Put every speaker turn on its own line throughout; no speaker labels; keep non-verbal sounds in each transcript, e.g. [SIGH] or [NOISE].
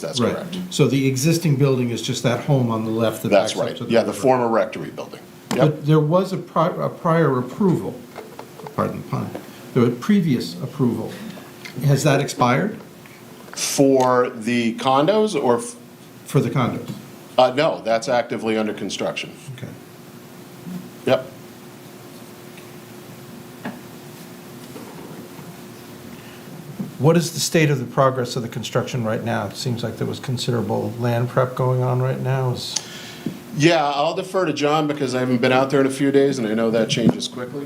That's
Right.
correct.
So the existing building is just that home on the left that
That's
backs up
right.
to the
Yeah, the
river.
former rectory building. Yep,
But there was a prior, a prior approval, pardon the pun, there was previous approval. Has that expired
for the condos or, f-
for the condos?
uh, no, that's actively under construction.
Okay.
Yep.
What is the state of the progress of the construction right now? It seems like there was considerable land prep going on right now. Is-
Yeah, I'll defer to John because I haven't been out there in a few days and I know that changes quickly.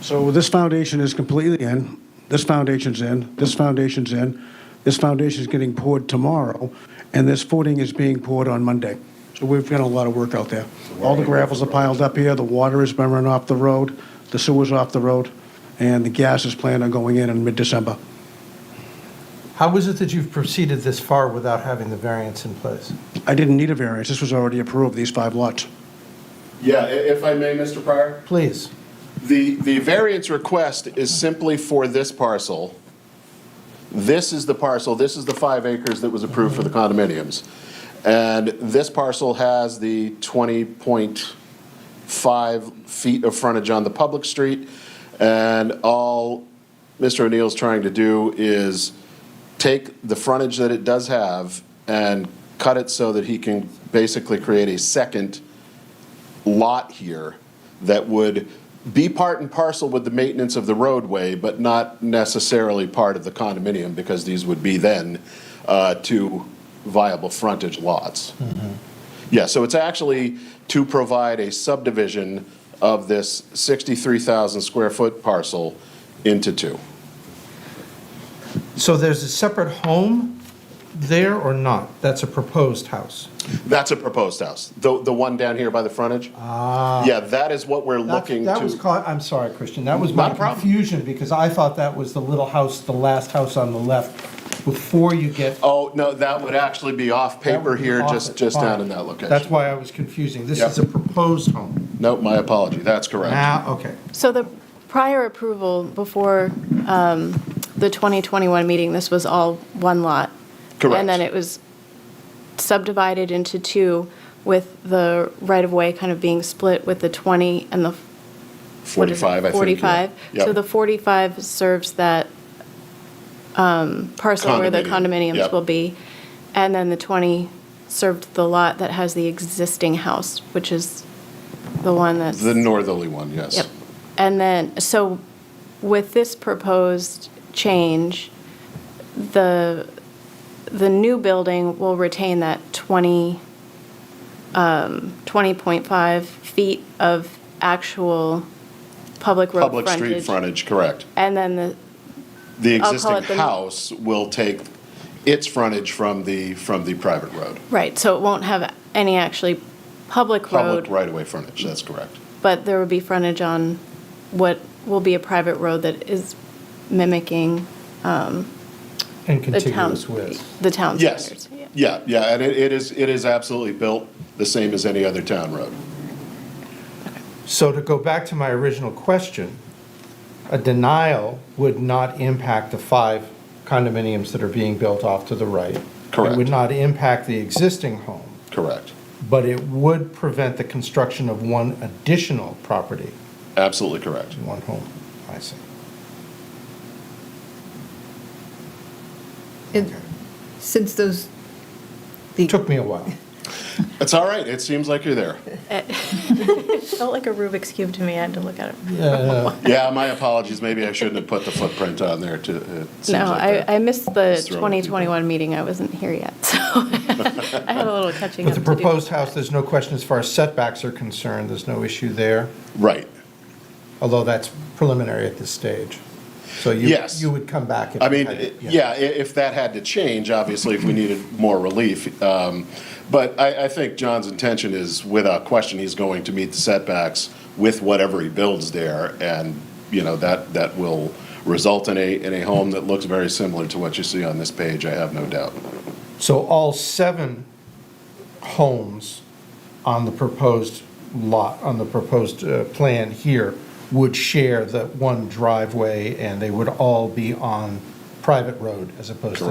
So this foundation is completely in, this foundation's in, this foundation's in, this foundation's getting poured tomorrow, and this footing is being poured on Monday. So we've got a lot of work out there. All the gravels are piled up here, the water is been run off the road, the sewer's off the road, and the gas is planned on going in in mid-December.
How is it that you've proceeded this far without having the variance in place?
I didn't need a variance, this was already approved, these five lots.
Yeah, i- if I may, Mr. Pryor?
Please.
The, the variance request is simply for this parcel. This is the parcel, this is the five acres that was approved for the condominiums. And this parcel has the 20.5 feet of frontage on the public street. And all Mr. O'Neill's trying to do is take the frontage that it does have and cut it so that he can basically create a second lot here that would be part and parcel with the maintenance of the roadway, but not necessarily part of the condominium, because these would be then uh, two viable frontage lots.
Mm-hmm.
Yeah, so it's actually to provide a subdivision of this 63,000 square foot parcel into two.
So there's a separate home there or not? That's a proposed house?
That's a proposed house, the, the one down here by the frontage. Ah. Yeah, that is what we're
That's-
looking to.
That was, caught- I'm sorry, Christian, that was
Not
my
a problem.
confusion, because I thought that was the little house, the last house on the left, before you get.
Oh, no, that would actually be off
that
paper
would be
here,
off
just,
it.
just down in
Fine.
that location.
That's why I was confusing, this is a
Yep.
proposed home.
Nope, my apology, that's correct.
Now, okay,
So the prior approval before um, the 2021 meeting, this was all one lot?
Correct.
And then it was subdivided into two with the right-of-way kind of being split with the 20 and the, what is
45,
it?
I think. yeah.
45. So
Yep.
the 45 serves that um, parcel where the
Condominium,
condominiums
yep.
will be. And then the 20 served the lot that has the existing house, which is the one that's.
The northerly one, yes.
Yep. And then, so with this proposed change, the, the new building will retain that 20, um, 20.5 feet of actual public road
Public
frontage.
street frontage, correct.
And then the,
The
I'll call
existing
it the-
house will take its frontage from the, from the private road.
right, so it won't have any actually public
Public
road,
right-of-way frontage, that's correct.
but there would be frontage on what will be a private road that is mimicking
and
the town,
contiguous with.
the town standards.
Yes, yeah, yeah, and it, it is, it is absolutely built the same as any other town road.
So to go back to my original question, a denial would not impact the five condominiums that are being built off to the right. It
Correct.
would not impact the existing home,
Correct,
but it would prevent the construction of one additional property.
absolutely correct.
One home, I see.
It- Since those, the,
Took me a while.
It's all right, it seems like you're there.
Felt like a Rubik's Cube to me, I had to look at it.
Yeah, my apologies, maybe I shouldn't have put the footprint on there to, it seems
No,
like
I,
that.
I missed the
Just throwing people.
2021 meeting, I wasn't here yet, so [LAUGHS] I had a little catching up
With
to
the
do.
proposed house, there's no question as far as setbacks are concerned, there's no issue there,
Right.
although that's preliminary at this stage. So you,
Yes.
you would come back. if
I
you
mean,
had it,
yeah, i- if that had to change, obviously, if we needed more relief. um, But I, I think John's intention is, without question, he's going to meet the setbacks with whatever he builds there, and, you know, that, that will result in a, in a home that looks very similar to what you see on this page, I have no doubt.
So all seven homes on the proposed lot, on the proposed uh, plan here, would share that one driveway, and they would all be on private road as opposed to